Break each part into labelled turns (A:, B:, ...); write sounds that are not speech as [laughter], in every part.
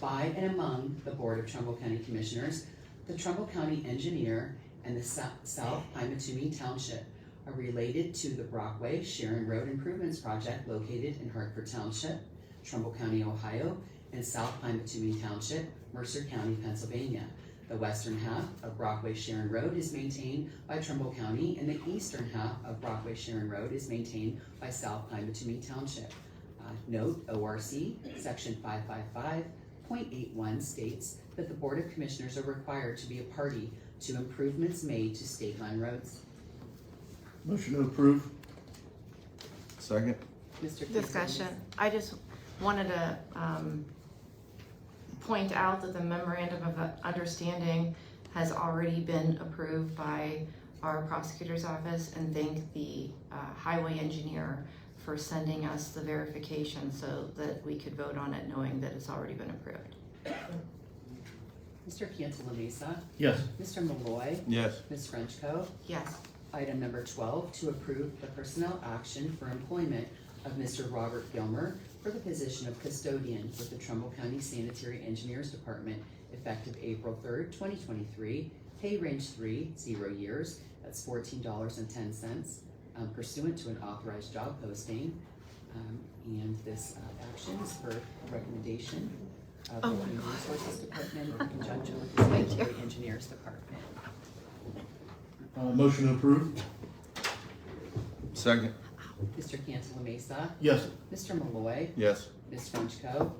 A: by and among the Board of Trumbull County Commissioners, the Trumbull County Engineer, and the Sou- South Pymatumee Township are related to the Brockway Sharon Road Improvements Project located in Hartford Township, Trumbull County, Ohio, and South Pymatumee Township, Mercer County, Pennsylvania. The western half of Brockway Sharon Road is maintained by Trumbull County, and the eastern half of Brockway Sharon Road is maintained by South Pymatumee Township. Uh, Note, ORC, section five five five point eight one states that the Board of Commissioners are required to be a party to improvements made to state-run roads.
B: Motion to approve. Second.
A: Mr. Cantala Mesa.
C: Discussion. I just wanted to, um, point out that the memorandum of understanding has already been approved by our prosecutor's office and thank the, uh, highway engineer for sending us the verification so that we could vote on it knowing that it's already been approved.
A: Mr. Cantala Mesa,
B: Yes.
A: Mr. Malloy,
B: Yes.
A: Ms. Frenchco.
C: Yes.
A: Item number twelve, to approve the personnel action for employment of Mr. Robert Gilmer for the position of custodian with the Trumbull County Sanitary Engineers Department effective April third, twenty twenty-three, pay range three, zero years, that's fourteen dollars and ten cents um, pursuant to an authorized job posting. Um, and this uh, action is for recommendation of the
C: Oh my
A: Human
C: God.
A: Resources Department
C: [laughs]
A: in conjunction with the
C: Thank you.
A: Sanitary Engineers Department.
B: Uh, motion to approve. Second.
A: Mr. Cantala Mesa,
B: Yes.
A: Mr. Malloy,
B: Yes.
A: Ms. Frenchco.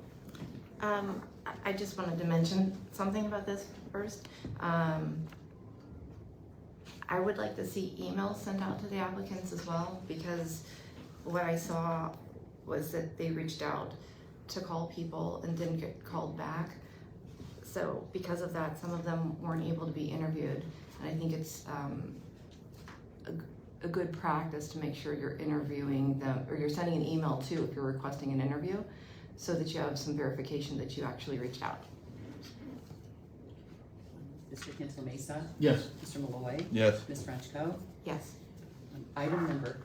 C: Um, I- I just wanted to mention something about this first. Um, I would like to see emails sent out to the applicants as well, because what I saw was that they reached out to call people and didn't get called back. So because of that, some of them weren't able to be interviewed, and I think it's, um, a, g- a good practice to make sure you're interviewing them, or you're sending an email too if you're requesting an interview so that you have some verification that you actually reached out.
A: Mr. Cancel Mesa,
B: Yes.
A: Mr. Malloy,
B: Yes.
A: Ms. Frenchco.
C: Yes.
A: Um, Item number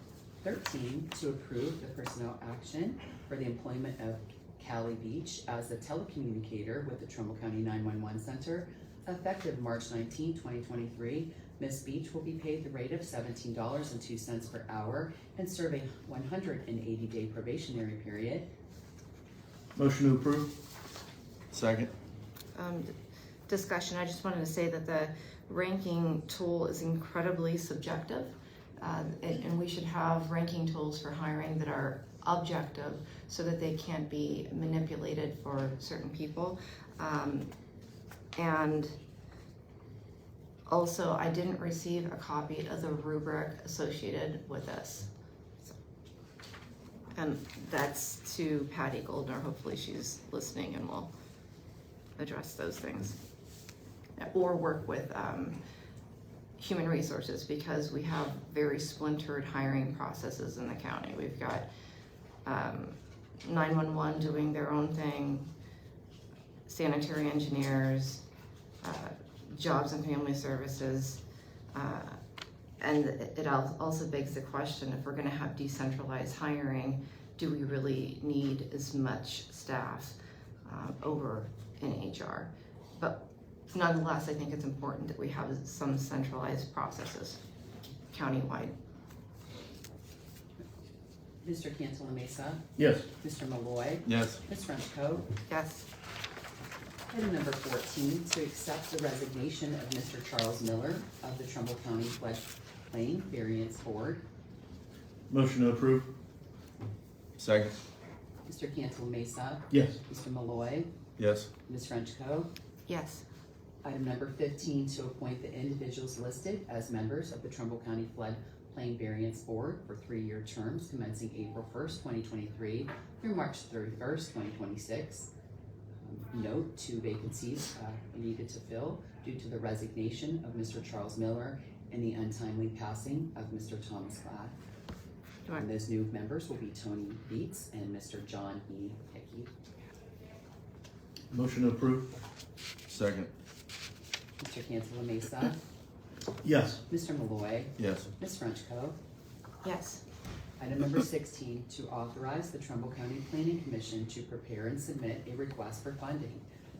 A: thirteen, to approve the personnel action for the employment of Cali Beach as a telecommunicator with the Trumbull County nine-one-one center effective March 19, 2023. Ms. Beach will be paid the rate of seventeen dollars and two cents per hour and serve a one hundred and eighty-day probationary period.
B: Motion to approve. Second.
C: Um, d- discussion, I just wanted to say that the ranking tool is incredibly subjective. Uh, and, and we should have ranking tools for hiring that are objective so that they can't be manipulated for certain people. Um, and also, I didn't receive a copy of the rubric associated with this. So- And that's to Patty Goldner, hopefully she's listening and will address those things. Or work with, um, human resources, because we have very splintered hiring processes in the county. We've got, um, nine-one-one doing their own thing, sanitary engineers, uh, jobs and family services. uh, And it al- also begs the question, if we're gonna have decentralized hiring, do we really need as much staff, um, over in HR. But nonetheless, I think it's important that we have some centralized processes countywide.
A: Mr. Cancel Mesa,
B: Yes.
A: Mr. Malloy,
B: Yes.
A: Ms. Frenchco.
C: Yes.
A: Item number fourteen, to accept the resignation of Mr. Charles Miller of the Trumbull County Floodplain Variance Board.
B: Motion to approve. Second.
A: Mr. Cancel Mesa,
B: Yes.
A: Mr. Malloy,
B: Yes.
A: Ms. Frenchco.
C: Yes.
A: Item number fifteen, to appoint the individuals listed as members of the Trumbull County Floodplain Variance Board for three-year terms commencing April first, twenty twenty-three through March thirty-first, twenty twenty-six. Um, Note, two vacancies uh, needed to fill due to the resignation of Mr. Charles Miller and the untimely passing of Mr. Thomas Glad.
C: Right.
A: And those new members will be Tony Beats and Mr. John E. Hickey.
B: Motion to approve. Second.
A: Mr. Cancela Mesa,
B: Yes.
A: Mr. Malloy,
B: Yes.
A: Ms. Frenchco.
C: Yes.
A: Item number sixteen, to authorize the Trumbull County Planning Commission to prepare and submit a request for funding